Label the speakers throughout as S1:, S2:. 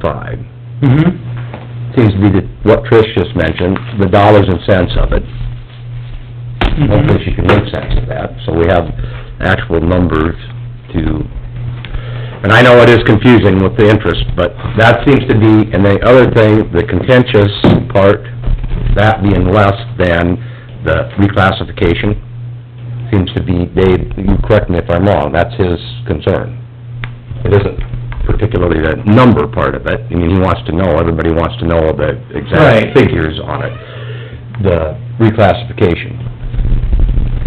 S1: five.
S2: Mm-hmm.
S1: Seems to be the, what Trish just mentioned, the dollars and cents of it.
S2: Mhm.
S1: Hopefully she can make sense of that, so we have actual numbers to, and I know it is confusing with the interest, but that seems to be, and the other thing, the contentious part, that being less than the reclassification, seems to be, Dave, you correct me if I'm wrong, that's his concern. It isn't particularly the number part of it, I mean, he wants to know, everybody wants to know the
S2: Right.
S1: exact figures on it, the reclassification.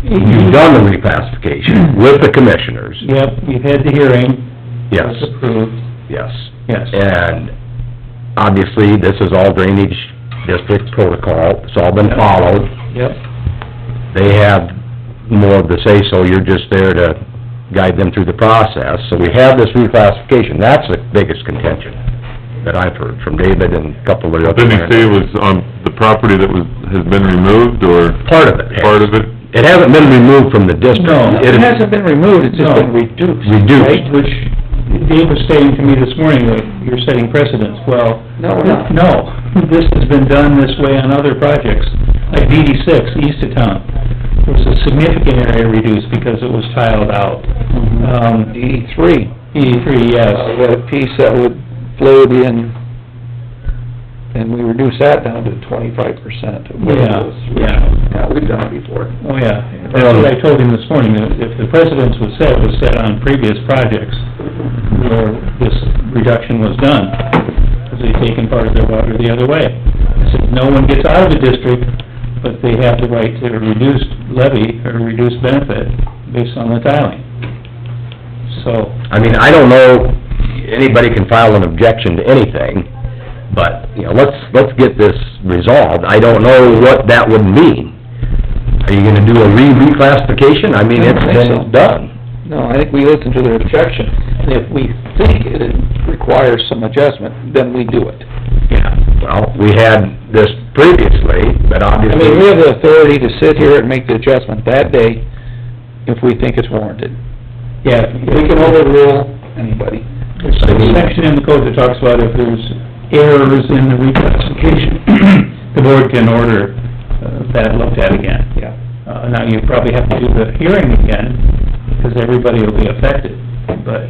S1: You've done the reclassification with the commissioners,
S2: Mm-hmm. Yep, you've had the hearing.
S1: yes,
S2: It's approved,
S1: yes.
S2: yes.
S1: And obviously, this is all drainage district protocol, it's all been followed.
S2: Yep,
S1: They have more of the say-so, you're just there to guide them through the process. So we have this reclassification, that's the biggest contention that I've heard from David and a couple of the other...
S3: Didn't he say it was on the property that was, has been removed, or
S1: Part of it.
S3: part of it?
S1: It hasn't been removed from the district.
S2: no, it
S1: It-
S2: hasn't been removed, it's just been
S1: No.
S2: reduced.
S1: Reduced.
S2: right? Which, Dave was saying to me this morning, like, you're setting precedents, well... No, no. this has been done this way on other projects, like DD six, east of town. There was a significant area reduced because it was tiled out. Um,
S4: D three.
S2: DD three,
S4: Uh,
S2: yes,
S4: we had a piece that would float in, and we reduced that down to twenty-five percent of what it
S2: Yeah,
S4: was.
S2: yeah.
S4: Yeah, we've done it before.
S2: oh, yeah. That's what I told him this morning, that if the precedence was set, it was set on previous projects where this reduction was done, because they've taken part of their water the other way. I said, no one gets out of the district, but they have the right to reduce levy or reduce benefit based on the tiling. So,
S1: I mean, I don't know, anybody can file an objection to anything, but, you know, let's, let's get this resolved. I don't know what that would mean. Are you gonna do a re-reclassification? I mean, it's
S4: I don't think so.
S1: been done.
S4: No, I think we listened to their objection, and if we think it requires some adjustment, then we do it.
S1: Yeah. Well, we had this previously, but
S4: I
S1: obviously...
S4: mean, we have the authority to sit here and make the adjustment that day if we think it's warranted.
S2: yeah,
S4: We can overrule anybody.
S2: There's a section in the code that talks about if there's errors in the reclassification, the board can order uh, that looked at again.
S4: Yeah.
S2: Uh, now, you probably have to do the hearing again, because everybody will be affected, but...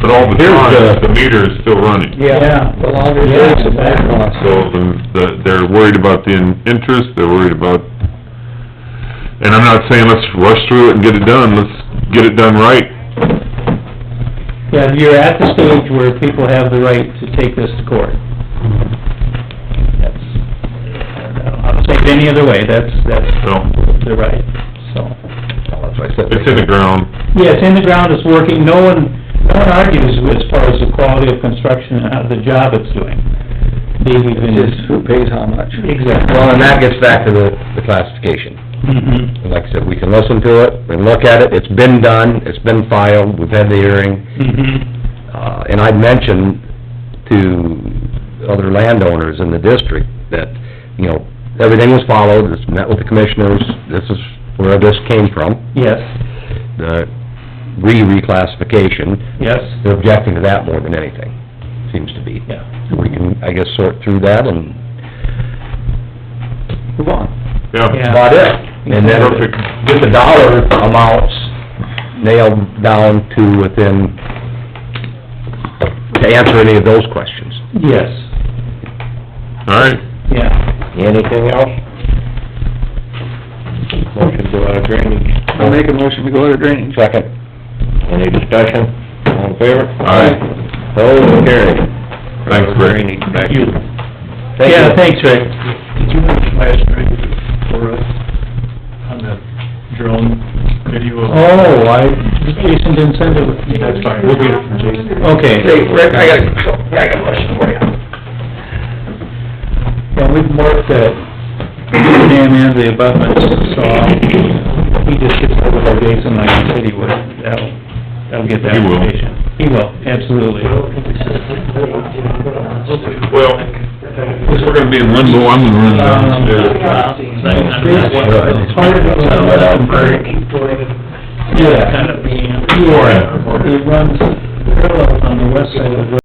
S3: But all the
S1: Here's
S3: time,
S1: the-
S3: the meter is still running,
S2: Yeah.
S4: The longer it takes, the more it costs.
S3: so the- the, they're worried about the in- interest, they're worried about... And I'm not saying let's rush through it and get it done, let's get it done right.
S2: Yeah, you're at the stage where people have the right to take this to court. That's, I'll say it any other way, that's, that's
S3: No.
S2: the right, so...
S1: That's why I said-
S3: It's in the ground,
S2: Yeah, it's in the ground, it's working, no one, no one argues as far as the quality of construction and how the job it's doing. They've even...
S4: It's just who pays how much.
S2: Exactly.
S1: Well, and that gets back to the, the classification.
S2: Mhm,
S1: And Like I said, we can listen to it, we can look at it, it's been done, it's been filed, we've had the hearing.
S2: mhm,
S1: Uh, and I've mentioned to other landowners in the district that, you know, everything was followed, it's met with the commissioners, this is where this came from,
S2: yes,
S1: the re-reclassification.
S2: yes,
S1: They're objecting to that more than anything, seems to be.
S2: yeah.
S1: We can, I guess, sort through that and
S4: Move on.
S2: Yeah.
S1: about it. And then
S2: Perfect.
S1: get the dollar amounts nailed down to within, to answer any of those questions.
S2: Yes,
S3: all right.
S2: yeah.
S1: Anything else?
S5: Motion to go out of drainage.
S4: I'll make a motion, we go out of drainage.
S1: Second.
S5: Any discussion? All in favor?
S3: Aye.
S1: Those carried.
S3: Thanks, Rick.
S5: Drainage, back to you.
S1: Thank
S2: Yeah,
S1: you.
S2: thanks, Rick.
S6: Did you watch last night for us on the drone video? of-
S2: Oh, I, Jason didn't send it with me.
S6: That's fine, we'll get it from Jason.
S2: Okay.
S1: Hey, Rick, I got, a- I got a question for you.
S2: Yeah, we've marked that dam and the abutments, so he just gets hold of our Jason like he said he would. That'll, that'll get that
S3: He will.
S2: information. He will, absolutely.
S3: Well, since we're gonna be in limbo, I'm gonna run
S1: Um,
S3: downstairs.
S1: uh,
S2: Yeah. He will. It runs parallel on the west side of the